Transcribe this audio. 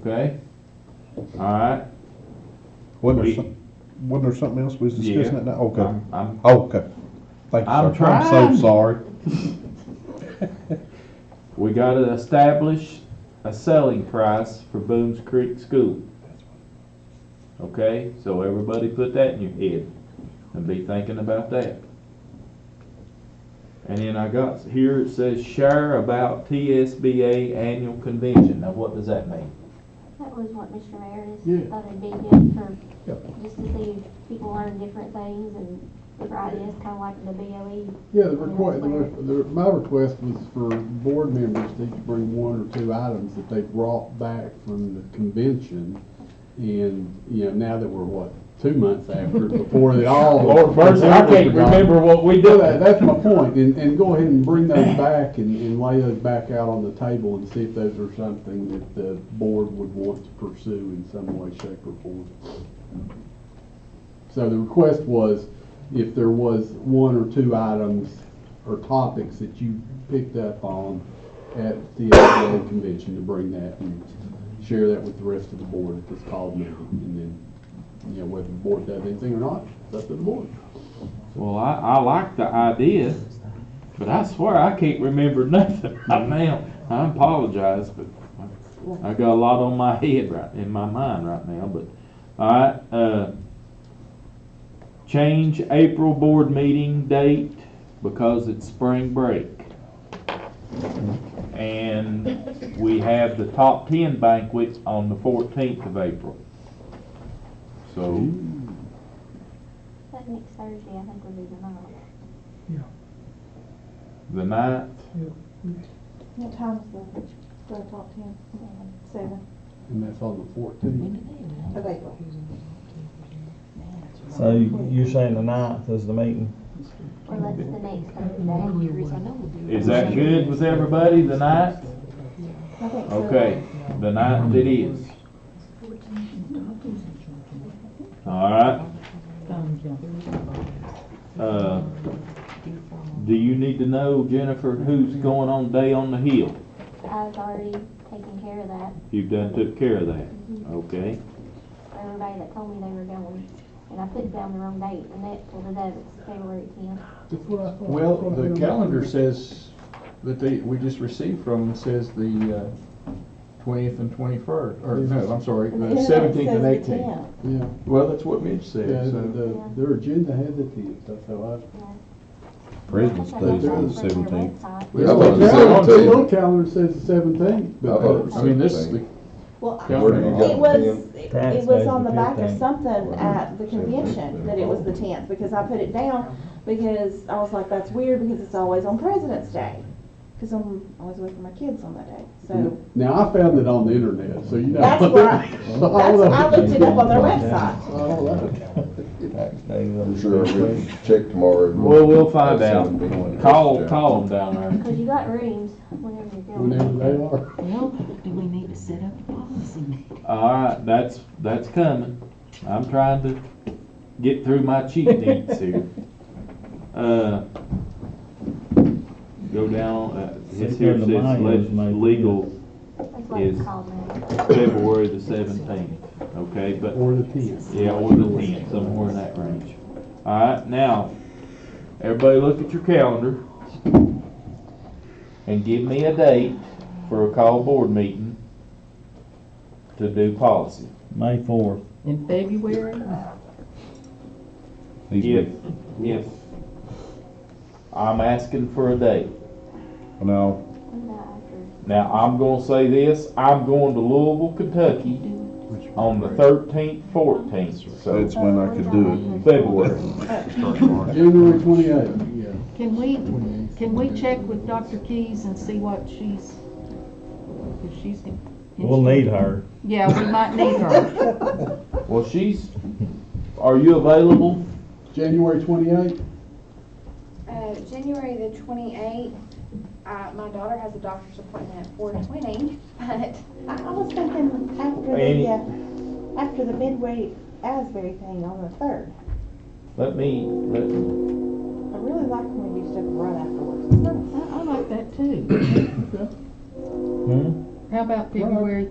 Okay? All right? Wasn't there We- some, wasn't there something else we was discussing Yeah. that night? Okay, Um, I'm- I'm, Oh, okay. Thank you, sir. I'm I'm trying. so sorry. we gotta establish a selling price for Boones Creek School. Okay, so everybody put that in your head and be thinking about that. And then I got, here it says share about TSBA annual convention. Now, what does that mean? That was what Mr. Meredith Yeah. thought it'd be good for, Yeah. just to see if people learn different things and different ideas, kind of like the E. BOE. Yeah, the request, the, re- the- my request was for board members to each bring one or two items that they brought back from the convention. And, you know, now that we're, what, two months after, before they all. what we Yeah, that- that's my point, and, and go ahead and bring those back and, and lay those back out on the table and see if those are something that the board would want to pursue in some way, shape, or form. So the request was, if there was one or two items or topics that you picked up on at the SBA convention, to bring that and share that with the rest of the board at this call meeting, and then, you know, whether the board does anything or not, it's up to the board. Well, I, I like the idea, but I swear I can't remember nothing right now. I apologize, but I got a lot on my head right, in my mind right now, but, all right, uh, change April board meeting date because it's spring break. And we have the top ten banquet on the fourteenth of April. So, That next Thursday, I think would be the night. the ninth, What time's the, the top ten? Seven. And that's on the fourteenth. Of April. So you- you're saying the ninth is the meeting? Well, that's the next Thursday. Is that good with everybody, the ninth? I think so. Okay, the ninth it is. All right. Um, Uh, Do you need to know, Jennifer, who's going on Day on the Hill? I've already taken care of that, You done took care of that, okay? for everybody that told me they were going, and I put down the wrong date, and that's for the it's February tenth. Well, the calendar says that they, we just received from, says the uh, twentieth and twenty-first, or no, I'm sorry, And the then it seventeenth and says the eighteenth. 10th. Yeah, Well, that's what Mitch yeah, said, the, so. the- their agenda had the tenth, so President's Day's on the seventeenth. Yeah, I. well, Yeah, it's the the 17th. calendar says the seventeenth, but. Uh, I mean, this, the Well, I- calendar. it was, it was Tax day's on the the back of 15th. something at the convention, that it was the tenth, because I put it down, because I was like, that's weird, because it's always on President's Day. Cause I'm always away from my kids on that day, so, Now, I found it on the internet, so you know. That's right. So all that's, I that- looked it up on their website. all that. Tax day on I'm the sure we'll check tomorrow. and Well, we'll find that's out. something we want to Call, discuss. call them down there. Cause you got rooms whenever you're going. Whenever they are. Well, do we need to set up a policy meeting? All right, that's, that's coming. I'm trying to get through my cheat sheets here. Uh, Go down, uh, it's here, it says leg- legal That's why it's Yes. called now. February the seventeenth, okay, but, Or the tenth. yeah, or the tenth, somewhere in that range. All right, now, everybody look at your calendar and give me a date for a call board meeting to do policy. May fourth. In February? If, if I'm asking for a date. No, And, uh, Now, I'm gonna say this, I'm going to Louisville, Kentucky on the thirteenth, fourteenth, that's when I could do it. February. January twenty-eighth, yeah. Can we, can we check with Dr. Keys and see what she's, if she's. in- We'll need her. Yeah, we might need her. Well, she's, are you available? January twenty-eighth, Uh, January the twenty-eighth, uh, my daughter has a doctor's appointment at four twenty, but I I was thinking after Any- the, uh, after the midway Asbury thing on the third. Let me, let, I really like when we do stuff right afterwards. I, I like that too. How about February